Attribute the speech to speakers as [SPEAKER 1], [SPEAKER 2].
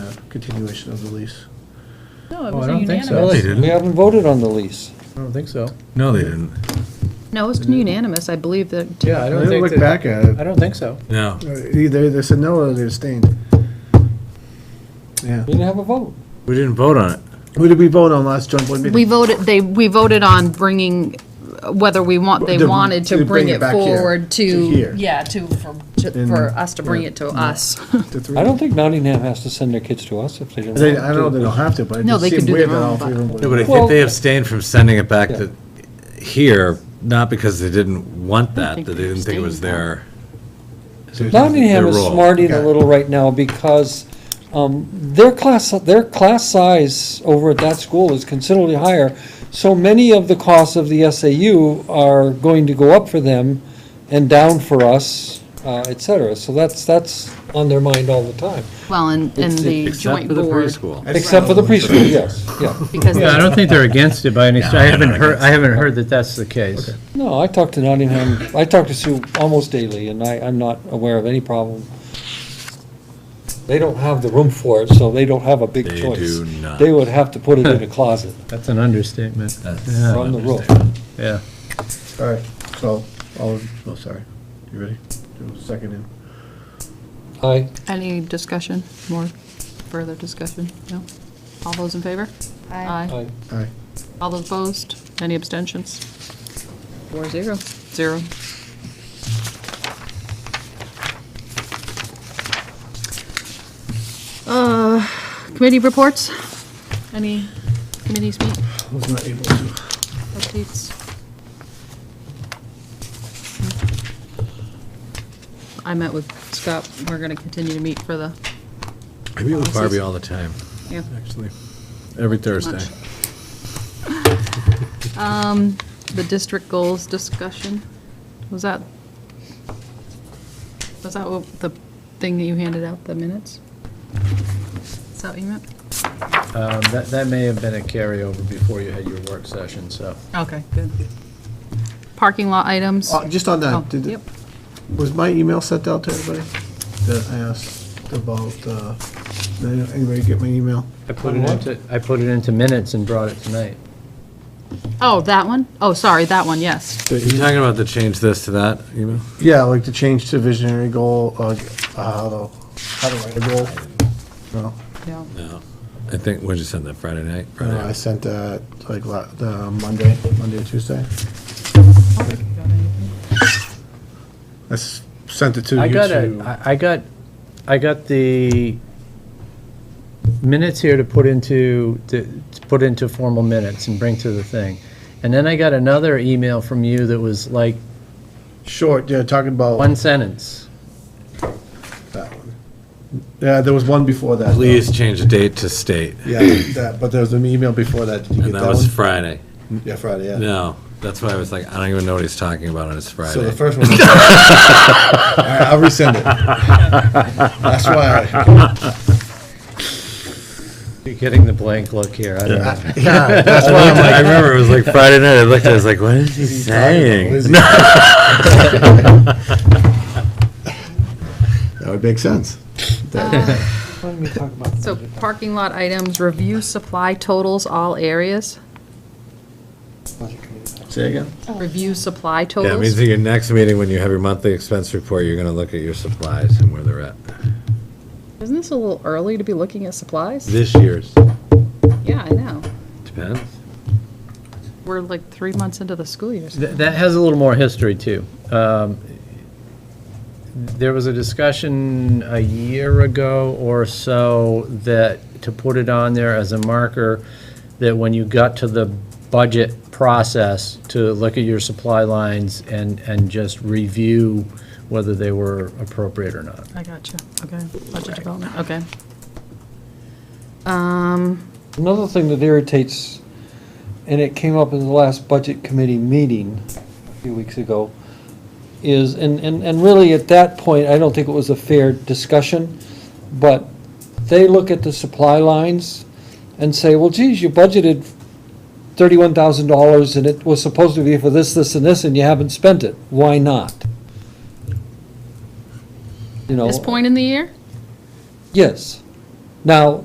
[SPEAKER 1] continuation of the lease.
[SPEAKER 2] No, it
[SPEAKER 1] Oh, I
[SPEAKER 2] was a
[SPEAKER 1] don't think
[SPEAKER 2] unanimous.
[SPEAKER 1] so. No, they
[SPEAKER 3] didn't.
[SPEAKER 4] We haven't voted on the lease.
[SPEAKER 1] I don't think so.
[SPEAKER 3] No, they didn't.
[SPEAKER 2] No, it was unanimous, I believe that.
[SPEAKER 1] Yeah, I
[SPEAKER 5] don't think
[SPEAKER 1] Look
[SPEAKER 5] that-
[SPEAKER 1] back at it.
[SPEAKER 5] I don't think so.
[SPEAKER 3] No.
[SPEAKER 1] Uh, Either they said no or they abstained. Yeah.
[SPEAKER 4] We didn't have a vote.
[SPEAKER 3] We didn't vote on it.
[SPEAKER 1] Who did we vote on last joint board meeting?
[SPEAKER 2] We voted, they, we voted on bringing, uh, whether we want, they
[SPEAKER 1] To-
[SPEAKER 2] wanted
[SPEAKER 1] to
[SPEAKER 2] to
[SPEAKER 1] bring
[SPEAKER 2] bring
[SPEAKER 1] it
[SPEAKER 2] it
[SPEAKER 1] back here,
[SPEAKER 2] forward
[SPEAKER 1] to here.
[SPEAKER 2] to, yeah, to, for, to-
[SPEAKER 1] And-
[SPEAKER 2] for us to bring
[SPEAKER 1] yeah.
[SPEAKER 2] it to us.
[SPEAKER 1] The three?
[SPEAKER 4] I don't think Nottingham has to send their kids to us if they don't.
[SPEAKER 1] They,
[SPEAKER 4] want
[SPEAKER 1] I know
[SPEAKER 4] to.
[SPEAKER 1] they don't have to, but it
[SPEAKER 2] No,
[SPEAKER 1] just
[SPEAKER 2] they could
[SPEAKER 1] seemed
[SPEAKER 2] do
[SPEAKER 1] weird
[SPEAKER 2] their
[SPEAKER 1] that
[SPEAKER 2] own
[SPEAKER 1] all three of them
[SPEAKER 3] No, but I
[SPEAKER 1] voted.
[SPEAKER 4] Well-
[SPEAKER 3] think they abstained from sending it back to here, not because they didn't want
[SPEAKER 2] I don't
[SPEAKER 3] that, that
[SPEAKER 2] think
[SPEAKER 3] they
[SPEAKER 2] they
[SPEAKER 3] didn't think it was
[SPEAKER 2] abstained, though.
[SPEAKER 3] their.
[SPEAKER 4] Nottingham
[SPEAKER 3] their
[SPEAKER 4] is
[SPEAKER 3] role.
[SPEAKER 4] smarting a
[SPEAKER 1] Okay.
[SPEAKER 4] little right now because um, their class, their class size over at that school is considerably higher. So many of the costs of the SAU are going to go up for them and down for us, uh, et cetera. So that's, that's on their mind all the time,
[SPEAKER 2] Well, and, and
[SPEAKER 4] It's-
[SPEAKER 2] the
[SPEAKER 3] Except
[SPEAKER 2] joint
[SPEAKER 3] for the
[SPEAKER 2] board.
[SPEAKER 3] preschool.
[SPEAKER 4] except for the preschool, yes, yeah.
[SPEAKER 2] because
[SPEAKER 5] Yeah, I don't think they're against it by any, I
[SPEAKER 3] they're
[SPEAKER 5] haven't
[SPEAKER 3] not
[SPEAKER 5] heard,
[SPEAKER 3] against
[SPEAKER 5] I haven't heard that that's the case.
[SPEAKER 4] No, I talk to Nottingham, I talk to Sue almost daily, and I, I'm not aware of any problem. They don't have the room for it, so they don't have a big
[SPEAKER 3] They
[SPEAKER 4] choice.
[SPEAKER 3] do not.
[SPEAKER 4] They would have to put it in a closet
[SPEAKER 5] That's an understatement.
[SPEAKER 3] That's
[SPEAKER 5] Yeah.
[SPEAKER 4] from the roof.
[SPEAKER 5] Yeah.
[SPEAKER 1] All right, so, all, of- oh, sorry. You ready? Do a Second in.
[SPEAKER 4] Aye.
[SPEAKER 2] Any discussion, more further discussion? No? All those in favor?
[SPEAKER 4] Aye.
[SPEAKER 1] Aye.
[SPEAKER 2] All those opposed? Any abstentions? Four zero. Zero. Uh, committee reports? Any committees meet,
[SPEAKER 1] I was not able to.
[SPEAKER 2] updates? I met with Scott. We're gonna continue to meet for the,
[SPEAKER 3] I meet with Barbie all the time,
[SPEAKER 2] yeah.
[SPEAKER 3] actually. Every Thursday.
[SPEAKER 2] Um, the district goals discussion, was that, was that what the thing that you handed out, the minutes? Is that what you meant?
[SPEAKER 5] Um, That, that may have been a carryover before you had your work session, so.
[SPEAKER 2] Okay, good. Parking lot items?
[SPEAKER 1] Uh, Just on
[SPEAKER 2] Oh,
[SPEAKER 1] that, did,
[SPEAKER 2] Yep,
[SPEAKER 1] Was my email sent out to everybody that I asked about, uh, did anybody get my email?
[SPEAKER 5] I put it into, I put it into minutes and brought it tonight.
[SPEAKER 2] oh, that one? Oh, sorry, that one, yes.
[SPEAKER 3] Are you talking about the change this to that email?
[SPEAKER 1] Yeah, like to change to visionary goal, uh, how to, how to write a goal. No,
[SPEAKER 2] Yeah.
[SPEAKER 3] No. I think, when did you send that, Friday night? Friday
[SPEAKER 1] no, I
[SPEAKER 3] night.
[SPEAKER 1] sent that like la- the Monday, Monday or Tuesday. I s- sent it to you
[SPEAKER 5] I got a,
[SPEAKER 1] two.
[SPEAKER 5] I I got, I got the minutes here to put into, to to put into formal minutes and bring to the thing. And then I got another email from you that was like
[SPEAKER 1] Short, yeah, talking about
[SPEAKER 5] one sentence.
[SPEAKER 1] that one. Yeah, there was one before that. though.
[SPEAKER 3] Please change the date to state,
[SPEAKER 1] Yeah, that, but there was an email before that. Did you get
[SPEAKER 3] and
[SPEAKER 1] that
[SPEAKER 3] that was
[SPEAKER 1] one?
[SPEAKER 3] Friday.
[SPEAKER 1] Yeah, Friday, yeah.
[SPEAKER 3] No, that's why I was like, I don't even know what he's talking about, and it's Friday.
[SPEAKER 1] So the first one. All right, I'll resend it. That's why.
[SPEAKER 5] You're getting the blank look here. I don't know.
[SPEAKER 1] I- Yeah, that's why I'm like.
[SPEAKER 3] I remember it was like Friday night. I looked, I was like, what is he
[SPEAKER 1] he's talking about
[SPEAKER 3] saying?
[SPEAKER 1] Lizzie. That would make sense.
[SPEAKER 4] Why don't we talk about
[SPEAKER 2] Uh, So parking lot items, review supply totals, all areas,
[SPEAKER 1] Say again?
[SPEAKER 2] review supply
[SPEAKER 3] Yeah, it means
[SPEAKER 2] totals.
[SPEAKER 3] at your next meeting, when you have your monthly expense report, you're gonna look at your supplies and where they're at.
[SPEAKER 2] Isn't this a little early to be looking at supplies?
[SPEAKER 3] This year's,
[SPEAKER 2] Yeah, I know.
[SPEAKER 3] depends.
[SPEAKER 2] We're like three months into the school year. so-
[SPEAKER 5] Th- That has a little more history, too. Um, There was a discussion a year ago or so that, to put it on there as a marker, that when you got to the budget process, to look at your supply lines and, and just review whether they were appropriate or not.
[SPEAKER 2] I got you, okay, budget development, okay. Um,
[SPEAKER 4] Another thing that irritates, and it came up in the last budget committee meeting a few weeks ago, is, and, and, and really at that point, I don't think it was a fair discussion, but they look at the supply lines and say, well, geez, you budgeted thirty-one thousand dollars and it was supposed to be for this, this, and this, and you haven't spent it. Why not? You know?
[SPEAKER 2] this point in the year?
[SPEAKER 4] Yes. Now,